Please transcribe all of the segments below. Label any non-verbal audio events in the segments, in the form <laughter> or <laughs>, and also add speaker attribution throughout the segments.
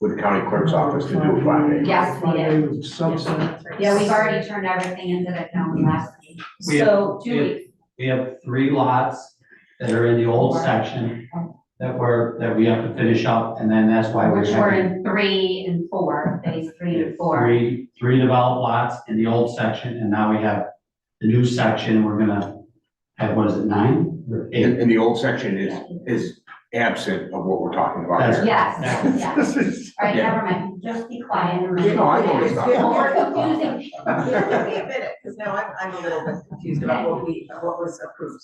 Speaker 1: with the county clerk's office to do a filing.
Speaker 2: Yes, we did.
Speaker 3: Friday was subset.
Speaker 2: Yeah,
Speaker 4: <laughs>
Speaker 2: we've already turned everything into the county last week.
Speaker 5: We have-
Speaker 2: So
Speaker 5: we
Speaker 2: two
Speaker 5: have-
Speaker 2: weeks,
Speaker 5: We have three lots that are in the old section that were, that we have to finish up, and then that's why we're
Speaker 2: which were
Speaker 5: having.
Speaker 2: in three and four, phase three and four.
Speaker 5: Three, three developed lots in the old section, and now we have the new section, we're gonna have, what is it, nine or
Speaker 1: And,
Speaker 5: eight?
Speaker 1: and the old section is, is absent of what we're talking about here.
Speaker 2: Yes, yes.
Speaker 3: This is-
Speaker 2: All right,
Speaker 1: Yeah.
Speaker 2: never mind. Just be quiet and remember.
Speaker 1: You know, I always
Speaker 2: More
Speaker 1: thought.
Speaker 2: confusing.
Speaker 4: Yeah, give me a minute, because now I'm, I'm a little bit confused about what we, what was approved.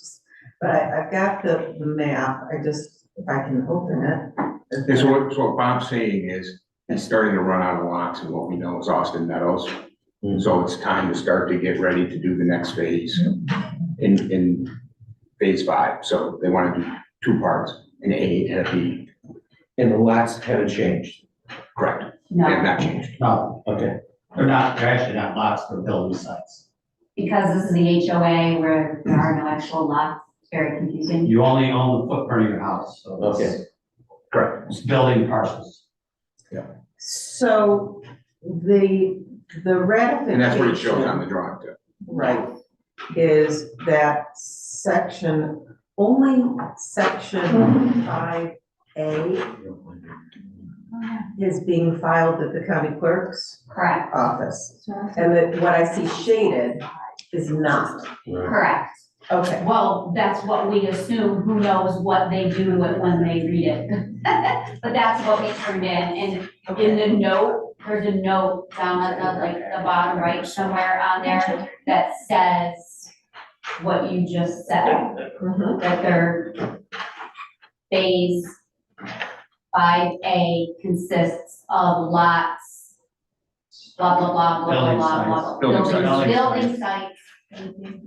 Speaker 4: But I, I've got the, the map, I just, if I can open it.
Speaker 1: <laughs> And so what, so what Bob's saying is, it's starting to run out of lots, and what we know is Austin Meadows. So it's time to start to get ready to do the next phase in, in phase five. So they want to do two parts, an A and a B,
Speaker 6: And the lots haven't changed.
Speaker 1: correct? They have
Speaker 2: No,
Speaker 1: not changed.
Speaker 5: No,
Speaker 6: Okay.
Speaker 5: they're not, they're actually not lots, they're building sites.
Speaker 2: because this is the HOA where there are no actual lots, it's very confusing.
Speaker 5: You only own the footprint of your house, so it's,
Speaker 6: Okay.
Speaker 1: Correct.
Speaker 5: it's building parcels.
Speaker 4: So the, the ratification.
Speaker 1: And that's what it shows on the drawing too.
Speaker 4: Right, is that section, only
Speaker 3: Mm-hmm.
Speaker 4: section five A is being filed at the county clerk's
Speaker 2: Correct,
Speaker 4: office. And that what I see shaded is not,
Speaker 2: correct.
Speaker 4: okay.
Speaker 2: Well, that's what we assume, who knows what they do with when they read it. <laughs> But that's what we turned in, and in the note, there's a note down at the, like, the bottom right somewhere on there that says what you just said,
Speaker 4: Mhm.
Speaker 2: that their phase five A consists of lots, blah, blah, blah, blah, blah,
Speaker 5: Building
Speaker 2: blah,
Speaker 5: sites.
Speaker 2: blah, blah.
Speaker 1: Building sites.
Speaker 2: Building sites, Thank you.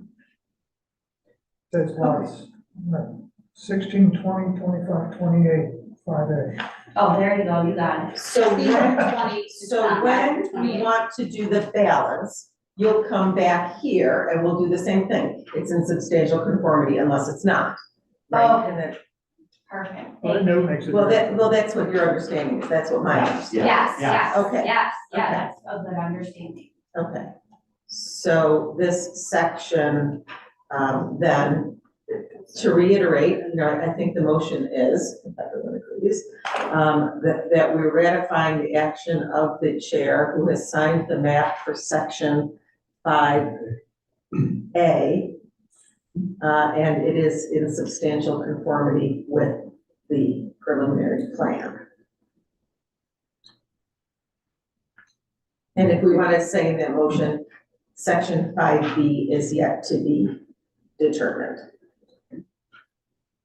Speaker 3: That's nice. Sixteen, twenty, twenty-five, twenty-eight, five A.
Speaker 2: Oh, there you go, you got it.
Speaker 4: So when, so when we
Speaker 2: Twenty.
Speaker 4: want to do the balance, you'll come back here and we'll do the same thing. It's in substantial conformity unless it's not.
Speaker 2: Oh.
Speaker 4: And then-
Speaker 2: Perfect.
Speaker 3: Well, that note makes it.
Speaker 4: Well, that, well, that's what your understanding is, that's what my understanding,
Speaker 2: Yes, yes,
Speaker 4: Okay.
Speaker 2: yes, yeah,
Speaker 4: Okay.
Speaker 2: that's a good understanding.
Speaker 4: okay. So this section, um, then, to reiterate, you know, I think the motion is, if everyone agrees, um, that, that we're ratifying the action of the chair who has signed the map for section five A. Uh, and it is in substantial conformity with the preliminary plan. And if we want to say in that motion, section five B is yet to be determined.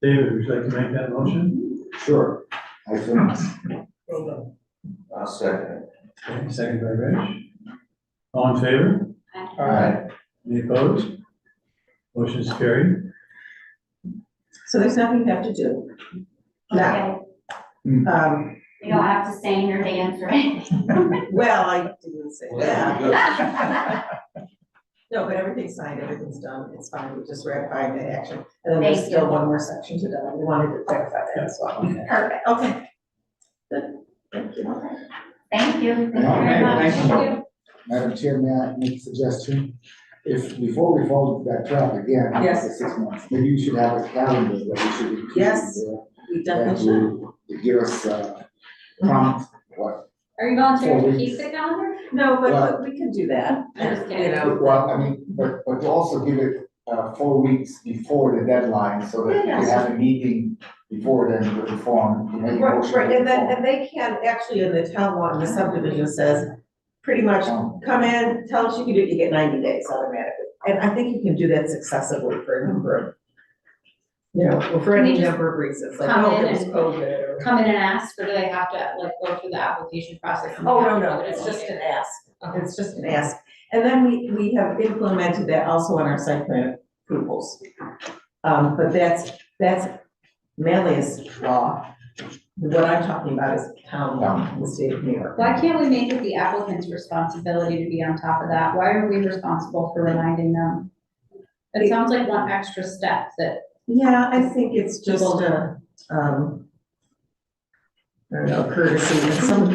Speaker 3: David, would you like to make that motion?
Speaker 6: Sure. I think,
Speaker 3: Well done.
Speaker 6: I'll second.
Speaker 3: Okay, Second by Rich. All in favor?
Speaker 6: All right.
Speaker 3: Any opposed? Motion's carried.
Speaker 4: So there's nothing you have to do. Now,
Speaker 2: Okay,
Speaker 4: um,
Speaker 2: you don't have to sing or dance
Speaker 4: <laughs>
Speaker 2: or anything.
Speaker 4: well, I didn't say that.
Speaker 2: Thank
Speaker 4: No, but everything's signed, everything's done, it's fine, we just ratified the action. And then there's
Speaker 2: Thank
Speaker 4: still
Speaker 2: you.
Speaker 4: one more section to do, and we wanted to clarify that as well.
Speaker 2: you. Perfect,
Speaker 4: Okay. Good, thank you.
Speaker 2: thank you, thank you very
Speaker 5: Okay,
Speaker 2: much.
Speaker 5: thank you.
Speaker 7: Madam Chair, may I make a suggestion? If, before we follow that track again,
Speaker 4: Yes.
Speaker 7: after six months, maybe you should have a calendar that we should include.
Speaker 4: Yes,
Speaker 7: in there
Speaker 4: We
Speaker 7: That
Speaker 4: definitely should.
Speaker 7: will give us, uh, prompt, what,
Speaker 2: Are you volunteering
Speaker 7: Four
Speaker 2: to
Speaker 7: weeks.
Speaker 2: keep the calendar?
Speaker 4: No, but-
Speaker 7: Well-
Speaker 4: but we can do that.
Speaker 2: I'm just
Speaker 4: You
Speaker 2: kidding.
Speaker 4: know,
Speaker 7: well, I mean, but, but to also give it, uh, four weeks before the deadline, so that
Speaker 4: Yeah,
Speaker 7: we have a meeting before then to reform, to make a
Speaker 4: Right,
Speaker 7: motion.
Speaker 4: right, and then,
Speaker 7: to
Speaker 4: and they can, actually, in the town law, the subdivision says, pretty much,
Speaker 7: reform.
Speaker 4: come in, tell us you can do, it, you get ninety days automatically. And I think you can do that successively for a number of, you know, well, for any
Speaker 8: Can you just
Speaker 4: number of reasons, like,
Speaker 8: come
Speaker 4: oh,
Speaker 8: in
Speaker 4: it was
Speaker 8: and-
Speaker 4: COVID or.
Speaker 8: come in and ask, or do they have to like go through the application process? and
Speaker 4: Oh, no,
Speaker 8: have
Speaker 4: no,
Speaker 8: to-
Speaker 4: it's just an ask,
Speaker 8: Okay.
Speaker 4: it's just an ask. And then we, we have implemented that also on our site plan approvals. Um, but that's, that's Manlius law. What I'm talking about is town law in the state of New York.
Speaker 8: Why can't we make it the applicant's responsibility to be on top of that? Why are we responsible for reminding them? It sounds like one extra step that,
Speaker 4: Yeah, I think it's just a, um, I don't know, courtesy, some